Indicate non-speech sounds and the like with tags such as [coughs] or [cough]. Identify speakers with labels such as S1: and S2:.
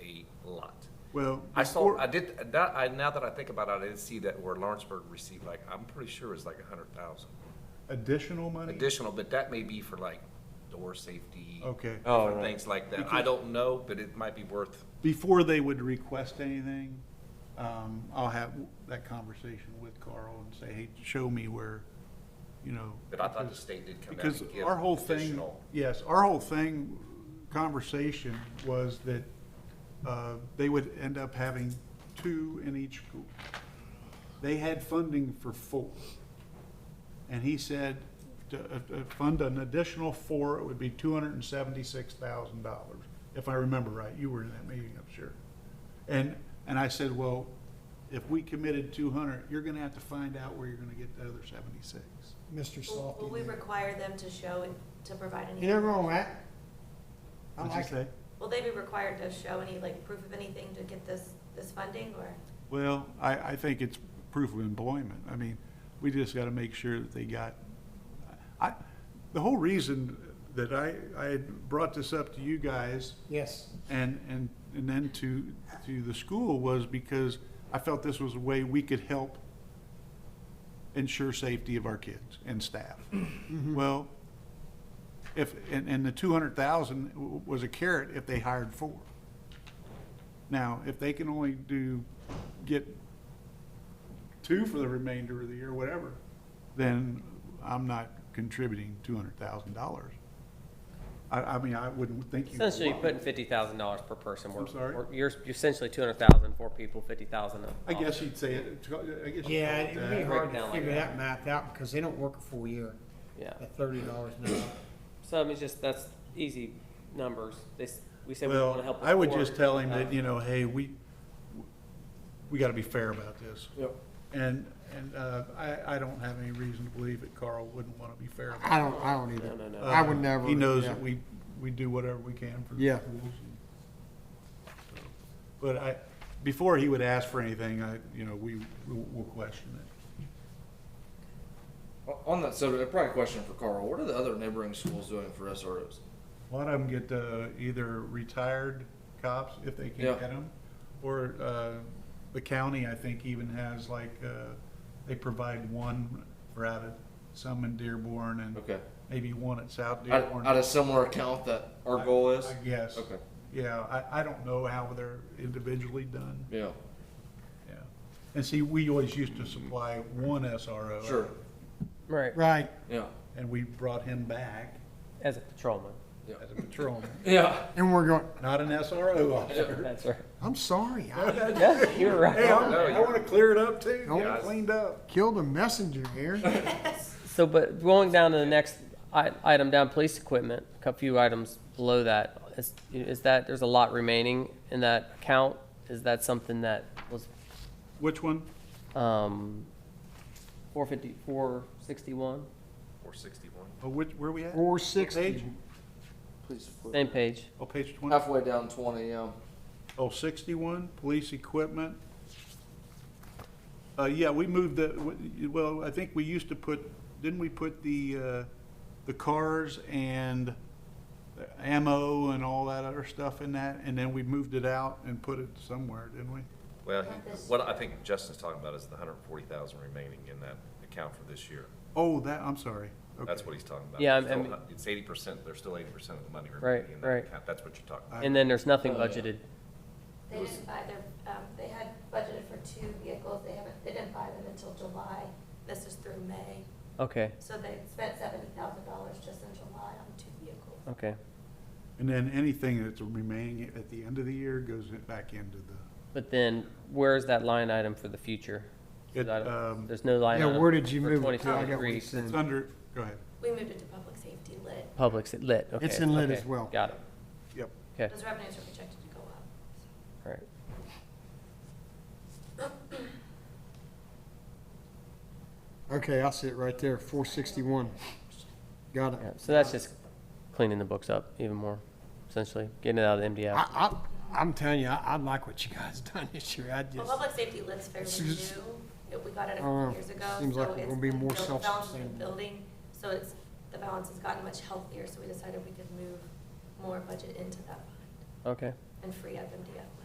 S1: Well.
S2: I saw,
S1: before-
S2: I did, that, I, now that I think about it, I did see that where Lawrenceburg received like, I'm pretty sure it's like a hundred thousand.
S1: Additional money?
S2: Additional, but that may be for like door safety.
S1: Okay.
S3: Oh,
S2: different
S3: right.
S2: Things like that. I
S1: Because-
S2: don't know, but it might be worth,
S1: Before they would request anything, um, I'll have that conversation with Carl and say, hey, show me where, you know.
S2: but I thought the
S1: because-
S2: state did come out and
S1: Because
S2: give
S1: our whole thing,
S2: additional.
S1: yes, our whole thing, conversation was that uh, they would end up having two in each school. They had funding for four. And he said to uh, uh, fund an additional four, it would be two hundred and seventy-six thousand dollars, if I remember right. You were in that meeting, I'm sure. And, and I said, well, if we committed two hundred, you're gonna have to find out where you're gonna get the other seventy-six.
S4: Mr.
S5: Will will we
S4: Softy.
S5: require them to show, to provide
S4: You
S5: any,
S4: never know, Matt. I
S1: What'd you
S4: like
S1: say?
S4: it.
S5: will they be required to show any, like, proof of anything to get this, this funding, or?
S1: Well, I, I think it's proof of employment. I mean, we just gotta make sure that they got, I, the whole reason that I, I had brought this up to you guys
S4: Yes,
S1: and, and, and then to, to the school was because I felt this was a way we could help ensure safety of our kids and staff. Well, if, and, and the two hundred thousand was a carrot if they hired four. Now, if they can only do, get two for the remainder of the year, whatever, then I'm not contributing two hundred thousand dollars. I, I mean, I wouldn't think you.
S3: Essentially, you're
S1: would.
S3: putting fifty thousand dollars per person. We're-
S1: I'm sorry?
S3: we're- You're, you're essentially two hundred thousand for people, fifty thousand.
S1: I guess you'd say it, I guess. you'd
S4: yeah,
S1: call it
S4: it'd be
S1: that.
S4: hard to
S3: Breakdown like
S4: figure
S3: that.
S4: that math out because they don't work a full year
S3: Yeah,
S4: at thirty dollars an hour.
S3: so I mean, it's just, that's easy numbers. They, s- we said we
S1: Well,
S3: wanna help.
S1: I would
S3: with
S1: just
S3: four,
S1: tell him
S3: uh,
S1: that, you know, hey, we, we gotta be fair about this.
S4: Yep.
S1: And, and, uh, I, I don't have any reason to believe that Carl wouldn't wanna be fair. about
S4: I don't, I don't
S3: No,
S4: either.
S3: no,
S1: it.
S3: no.
S4: I would
S1: Uh,
S4: never,
S1: He knows
S4: yeah.
S1: that we, we do whatever we can for the
S4: Yeah.
S1: schools. and- But I, before he would ask for anything, I, you know, we, we'll we'll question it.
S6: On that subject, probably a question for Carl. What are the other neighboring schools doing for SROs?
S1: A lot of them get, uh, either retired cops, if they can
S6: Yeah.
S1: get them, or, uh, the county, I think, even has like, uh, they provide one for out of, some in Dearborn and
S6: Okay.
S1: maybe one at South
S6: Out,
S1: Dearborn.
S6: out of similar account that our goal is?
S1: I guess.
S6: Okay.
S1: Yeah, I, I don't know how they're individually done,
S6: Yeah.
S1: yeah. And see, we always used to supply one SRO.
S6: Sure.
S3: Right,
S4: Right,
S6: Yeah.
S1: And we brought him back
S3: as a patrolman.
S1: as a patrolman,
S6: Yeah.
S4: and we're going,
S1: not an SRO
S6: [laughs]
S1: officer.
S3: That's right.
S4: I'm sorry, [laughs] I
S3: Yeah, [laughs] you're
S1: Hey,
S3: right.
S1: I'm- I wanna clear it up too,
S4: Oh.
S1: get it cleaned up.
S4: killed a messenger here.
S3: So, but going down to the next i- item down, police equipment, a few items below that, is, is that, there's a lot remaining in that account? Is that something that was,
S1: Which one?
S3: um, four fifty, four sixty-one?
S2: Four sixty-one.
S1: Oh, which, where are we at?
S4: Four sixty,
S1: Page?
S6: Please. flip.
S3: Same page.
S1: Oh, page twenty.
S2: Uh,
S6: Halfway down 20. Um,
S1: Oh, sixty-one, police equipment. Uh, yeah, we moved the, w- well, I think we used to put, didn't we put the, uh, the cars and ammo and all that other stuff in that? And then we moved it out and put it somewhere, didn't we?
S2: Well, he-
S5: Not this-
S2: what I think Justin's talking about is the hundred and forty thousand remaining in that account for this year.
S1: Oh, that, I'm sorry.
S2: That's
S1: Okay.
S2: what he's talking about.
S3: Yeah,
S2: It's
S3: I'm-
S2: still-
S3: I'm-
S2: It's eighty percent, there's still eighty percent of the money
S3: Right,
S2: remaining in that
S3: right.
S2: account. That's what you're talking about.
S3: And then there's nothing
S6: Oh, yeah.
S3: budgeted.
S5: They didn't buy their, um, they had budgeted for two vehicles, they haven't, they didn't buy them until July, this is through May.
S3: Okay,
S5: So they spent seventy thousand dollars just in July on two vehicles.
S3: okay.
S1: And then anything that's remaining at the end of the year goes back into the,
S3: But then where's that line item for the future?
S1: It,
S3: That-
S1: um,
S3: There's no line
S4: yeah,
S3: item.
S4: where did you
S3: for
S4: move it to? I got what
S3: 2023.
S4: you said.
S1: it's under, go ahead.
S5: We moved it to public safety lit,
S3: Public, s- lit, okay.
S4: It's in lit
S3: okay,
S4: as well.
S3: Got it,
S1: Yep.
S3: okay,
S5: those revenues are projected to go up.
S3: all right.
S5: [coughs]
S4: Okay, I see it right there, four sixty-one. Got it.
S3: Yeah, So that's just cleaning the books up even more, essentially, getting it out of the MDF.
S4: I, I, I'm telling you, I, I like what you guys done this year. I
S5: Well,
S4: just,
S5: public safety lit's fairly new,
S4: Seems-
S5: It- we got it
S4: Uh,
S5: a couple years ago.
S4: seems like
S5: so
S4: we're
S5: it's
S4: gonna be
S5: been
S4: more
S5: built- the balance has been
S4: self-sustainable.
S5: Building, so it's, the balance has gotten much healthier, so we decided we could move more budget into that fund
S3: Okay,
S5: and free up MDF.